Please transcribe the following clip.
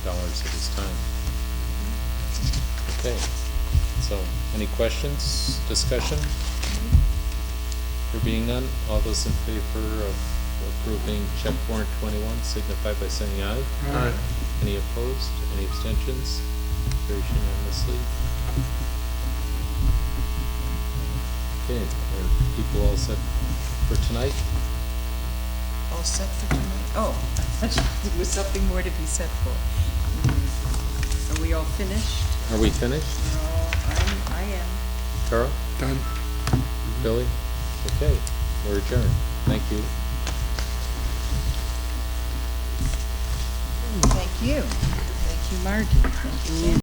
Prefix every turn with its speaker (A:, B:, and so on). A: comments at this time? Okay, so any questions, discussion? There being none, all those in favor of approving check warrant twenty-one signify by saying aye.
B: Aye.
A: Any opposed? Any abstentions? Carries unanimously. Okay, are people all set for tonight?
C: All set for tonight? Oh, I thought there was something more to be set for. Hmm. Are we all finished?
A: Are we finished?
C: No, I'm, I am.
A: Carl?
B: Done.
A: Billy? Okay, we're adjourned. Thank you.
C: Thank you. Thank you, Margie. Thank you, Ken.